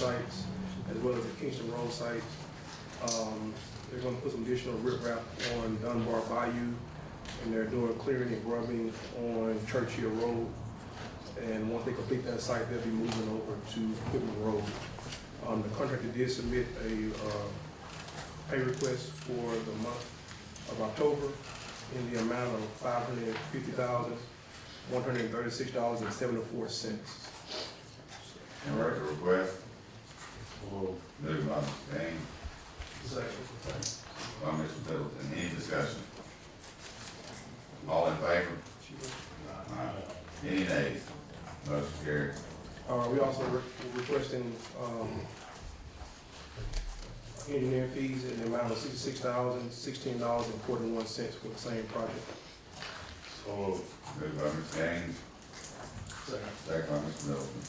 sites, as well as the Kingston Road site. Um, They're gonna put some additional riprap on Dunbar Bayou, and they're doing clearing and grubbing on Churchill Road. And once they complete that site, they'll be moving over to Quitman Road. Um, The contractor did submit a uh, pay request for the month of October in the amount of five hundred and fifty thousand, one hundred and thirty-six dollars and seventy-four cents. And write the request. Moved by Mr. Payne, by Mr. Middleton, any discussion? All in favor? Aye. Any nays? Motion carried. Uh, we also re- we're requesting, um, engineering fees in the amount of sixty-six thousand, sixteen dollars and forty-one cents for the same project. Moved by Mr. Gaines. Second by Mr. Middleton.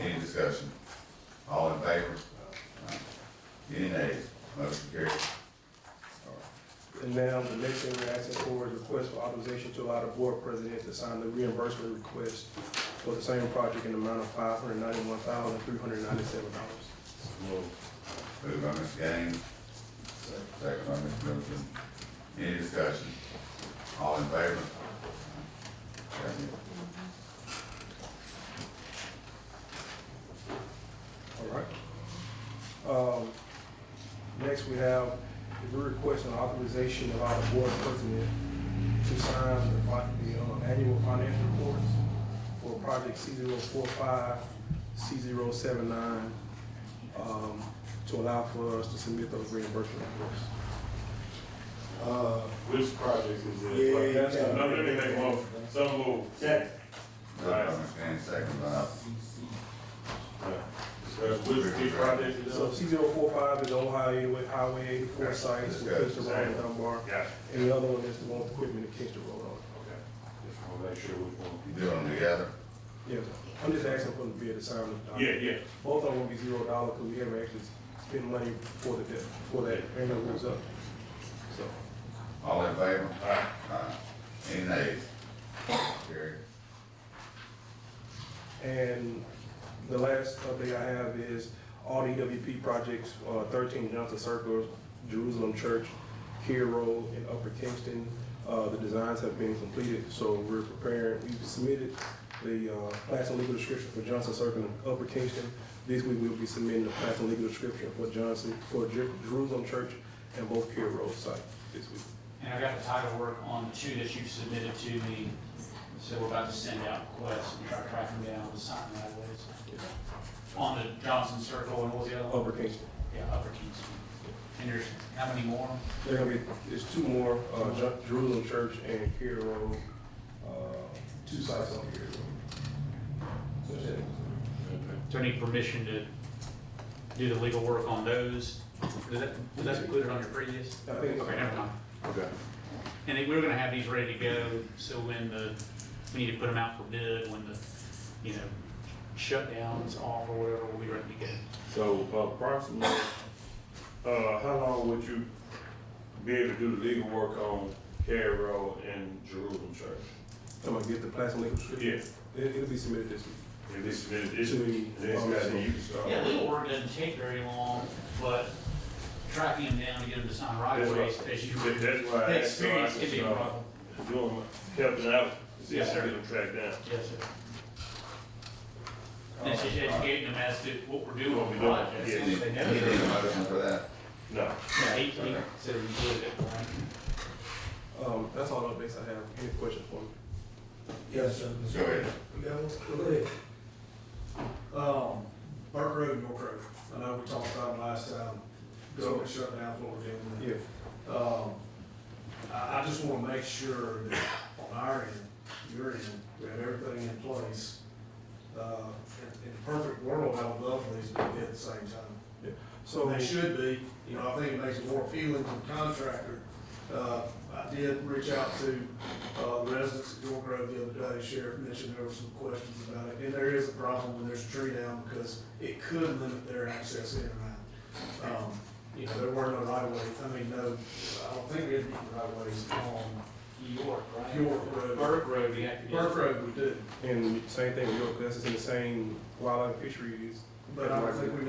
Any discussion? All in favor? Aye. Any nays? Motion carried. And now, the next thing we're asking for is request for authorization to allow the board president to sign the reimbursement request for the same project in the amount of five hundred ninety-one thousand, three hundred ninety-seven dollars. Moved by Mr. Gaines. Second by Mr. Middleton. Any discussion? All in favor? That's it. All right. Um, Next, we have, if we request an authorization of our board president to sign the fi- the um, annual financial reports for project C 45 C 79 um, to allow for us to submit those reimbursement reports. Uh, Which project is yeah. it? No, let me make one, so move. Second. Moved by Mr. Gaines, second by Which, which project is So it? C 45 is the Ohio Highway- Highway eighty-four sites with Mr. Ron Dunbar, Got it, and the other one is the one with equipment and Kingston Road on. it. okay. Just wanna make sure which one. You do them together? Yes, I'm just asking for the bid to sign the document. Yeah, yeah, Both of them will be zero dollar because we haven't actually spent money for the debt, for that annual goes up. So, All in favor? alright, Aye. Any nays? Carry. and the last update I have is all the EWP projects, uh, thirteen Johnson Circle, Jerusalem Church, Here Road in Upper Kingston. Uh, the designs have been completed, so we're preparing, we submitted the, uh, plans and legal description for Johnson Circle in Upper Kingston. This week we'll be submitting the plans and legal description for Johnson, for Jer- Jerusalem Church and both Here Road sites this week. And I got the title work on the two that you submitted to me, so we're about to send out requests and try to track them down and sign that way. On the Johnson Circle and what was the other one? Upper Kingston. Yeah, Upper Kingston. And there's, how many more? There gonna be, there's two more, uh, Ju- Jerusalem Church and Carroll Road, uh, two sites on Carroll Road. That's it. Is there any permission to do the legal work on those? Was that, was that included on your previous? I think, Okay, never mind. okay, And they- we were gonna have these ready to go, so when the, we need to put them out for bid, when the, you know, shutdown's off or whatever, we'll be ready to go. so approximately, uh, how long would you be able to do the legal work on Cary Road and Jerusalem Church? I'm gonna get the plastic legal description. Yeah, It, it'll be submitted this week. and this, this, this, To me, this, um, guy, you can start. Yeah, legal work doesn't take very long, but tracking them down to get them to sign right That's away, right. as you, That- That's why I that asked, so I experience can be can a start problem. doing, helping out, see if I Yes, sir. can track down. Yes, sir. And it's just educating them as to what we're doing What on we the doing, project. yeah. You need, They you know need it. a motion for that? No, Yeah, he, he said we did it, right? Um, that's all the updates I have. Any questions for me? Yes, sir. Go ahead. Yeah, go ahead. Um, Burke Road, York Road, I know we talked about it last time, government shutdown, Florida, Yeah, um, I, I just wanna make sure that on our end, your end, we have everything in place. Uh, in, in a perfect world, I would love for these to be at the same time. so, They should be, you know, I think it makes it more appealing to the contractor. Uh, I did reach out to, uh, residents at York Road the other day, Sheriff mentioned there were some questions about it. And there is a problem when there's a tree down because it could limit their access in and out. Um, you know, there were no right of way, I mean, no, I don't think we had any right of ways on New York, right? York Road. Burke Road, we have to do. Burke Road we do. and same thing with York, that's in the same wildlife fisheries But I don't think we